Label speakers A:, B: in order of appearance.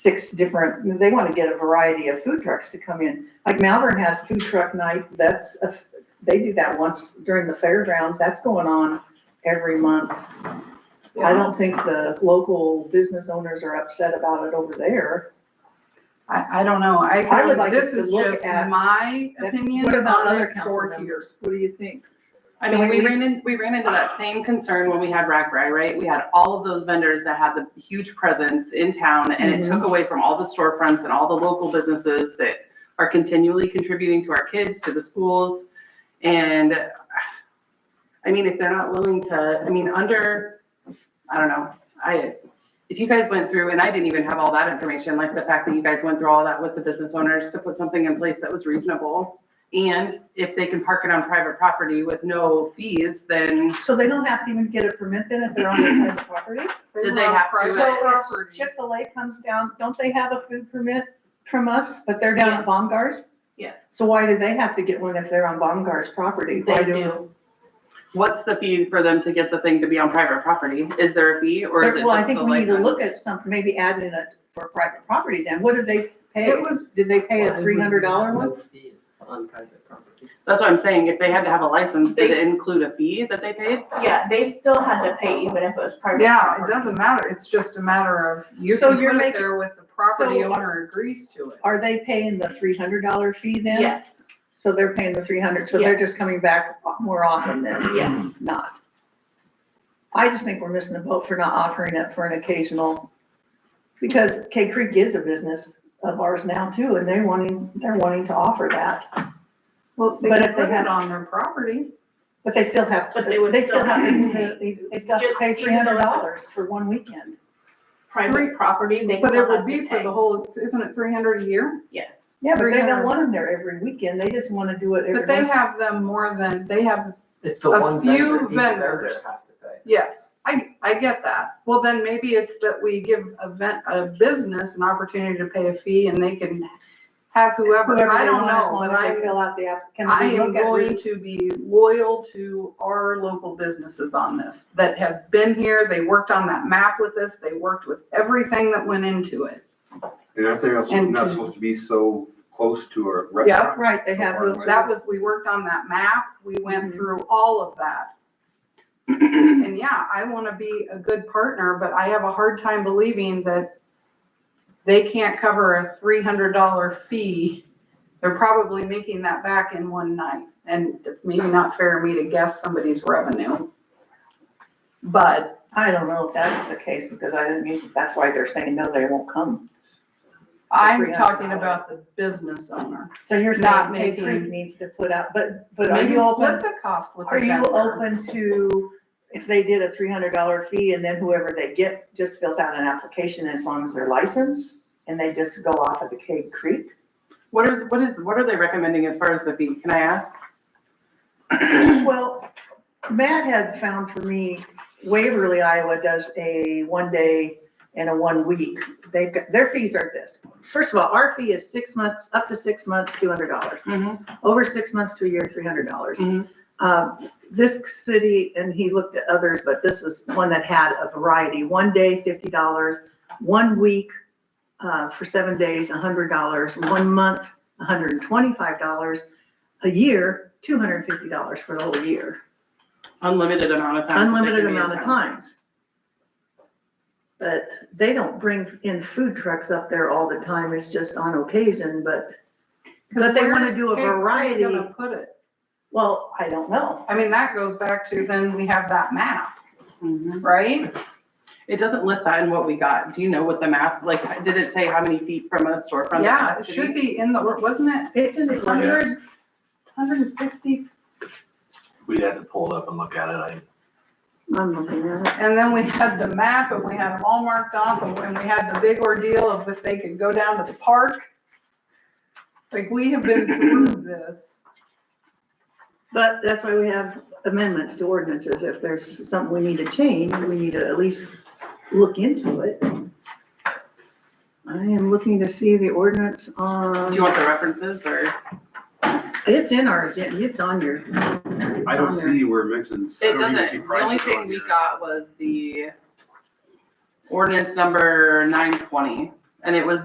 A: six different, they want to get a variety of food trucks to come in. Like Malvern has food truck night, that's, a- they do that once during the fairgrounds, that's going on every month. I don't think the local business owners are upset about it over there.
B: I, I don't know. I,
A: I would like
B: this
A: us to
B: is
A: look
B: just
A: at-
B: my opinion.
A: What about
B: on
A: other
B: it
A: council
B: for
A: members? What do you think?
C: I
A: Can
C: mean,
A: we
C: we
A: at
C: ran in, we ran into that same concern when we had Ragbri, right? We had all of those vendors that had the huge presence in town and it
A: Mm-hmm.
C: took away from all the storefronts and all the local businesses that are continually contributing to our kids, to the schools. And I mean, if they're not willing to, I mean, under, I don't know, I, if you guys went through, and I didn't even have all that information, like the fact that you guys went through all that with the business owners to put something in place that was reasonable. And if they can park it on private property with no fees, then
A: So they don't have to even get a permit then if they're on their private property?
B: They
C: Did
B: were
C: they
B: on
C: have to-
B: private
A: So if
B: property.
A: Chick-fil-A comes down, don't they have a food permit from us, but they're down at Baumgart's?
C: Yes.
A: So why do they have to get one if they're on Baumgart's property? Why
D: They
A: do-
D: do.
C: what's the fee for them to get the thing to be on private property? Is there a fee or is it
A: Well, I
C: just
A: think
C: the
A: we need to
C: license?
A: look at something, maybe add in a, for private property then. What did they pay?
B: It was,
A: Did they pay a three hundred dollar one?
D: On private property.
C: That's what I'm saying. If they had to have a license, did it
D: They-
C: include a fee that they paid?
D: Yeah, they still had to pay even if it was private.
B: yeah, it
D: property.
B: doesn't matter. It's just a matter of you
A: So
B: can
A: you're
B: put it
A: making-
B: there with the property
A: so-
B: owner agrees to it.
A: Are they paying the three hundred dollar fee then?
D: Yes,
A: So they're paying the three hundred, so they're just coming back more often than
D: yes.
A: not. I just think we're missing the boat for not offering it for an occasional, because K Creek is a business of ours now too, and they're wanting, they're wanting to offer that.
B: Well, they
A: But
B: can
A: if they
B: put
A: had-
B: it on their property.
A: But they still have,
D: But they would
A: they still
D: still
A: have
D: have
A: to pay,
D: to
A: they still have to
D: Just
A: pay three
D: even though
A: hundred
D: it's a-
A: dollars for one weekend.
D: Private property, they
B: But
D: still have
B: it would
D: to
B: be for
D: pay.
B: the whole, isn't it three hundred a year?
D: Yes.
A: Yeah, but they don't
B: 300.
A: want them there every weekend, they just wanna do it every
B: But they
A: once.
B: have them more than, they have,
E: It's the
B: A
E: one
B: few
E: vendor, each vendor
B: vendors.
E: has to pay.
B: yes, I, I get that. Well, then maybe it's that we give a ven- a business an opportunity to pay a fee and they can have whoever,
A: Whoever
B: I
A: they
B: don't
A: want, as
B: know,
A: long
B: but
A: as they
B: I'm
A: Fill out the app, can
B: I
A: we
B: am
A: look at
B: going to be loyal to our local businesses on this that have been here. They worked on that map with us. They worked with everything that went into it.
F: And I think that's
B: And
F: not
B: to-
F: supposed to be so close to a restaurant.
A: Right, they have,
F: Somewhere.
B: That was, we worked on that map. We went
A: Mhm.
B: through all of that. And yeah, I want to be a good partner, but I have a hard time believing that they can't cover a three hundred dollar fee. They're probably making that back in one night and it's maybe not fair of me to guess somebody's revenue. But
A: I don't know if that's the case, because I didn't mean, that's why they're saying, no, they won't come.
B: I'm
A: $300.
B: talking about the business owner.
A: So you're
B: Not
A: saying Cave Creek
B: making-
A: needs to put out, but, but are
B: Maybe
A: you
B: split
A: open,
B: the cost with the
A: are you
B: vendor.
A: open to, if they did a three hundred dollar fee and then whoever they get just fills out an application as long as they're licensed? And they just go off of the Cave Creek?
C: What is, what is, what are they recommending as far as the fee? Can I ask?
A: Well, Matt had found for me, Waverly, Iowa does a one day and a one week. They've, got- their fees are this. First of all, our fee is six months, up to six months, two hundred dollars.
C: Mm-hmm.
A: over six months to a year, three hundred dollars. Uh,
C: Mhm.
A: This city, and he looked at others, but this was one that had a variety, one day, fifty dollars, one week, uh, for seven days, hundred dollars, one month, hundred and twenty-five dollars, a year, two hundred and fifty dollars for the whole year,
C: Unlimited amount of time.
A: unlimited amount of times. But they don't bring in food trucks up there all the time, it's just on occasion, but,
B: 'Cause
A: But they
B: where
A: wanna
B: is
A: do a
B: Cape Creek
A: variety.
B: gonna Put it.
A: well, I don't know.
B: I mean, that goes back to then we have that map,
C: hmm
B: right?
C: It doesn't list that in what we got. Do you know what the map, like, did it say how many feet from a storefront?
B: Yeah, it should be in the, wasn't it
A: It's in the
B: hundred, hundred and fifty?
E: We'd have to pull it up and look at it, I.
A: I'm looking at it.
B: And then we had the map and we had them all marked off and when we had the big ordeal of if they could go down to the park. Like, we have been through this.
A: But that's why we have amendments to ordinances. If there's something we need to change, we need to at least look into it. I am looking to see the ordinance
C: Do
A: on,
C: you want the references or?
A: it's in our agenda, it's on your. it's
F: I don't
A: on there.
F: see where Mixon's, I
C: It
F: don't even see
C: doesn't. The only
F: prices on
C: thing we
F: here.
C: got was the ordinance number nine twenty. And it was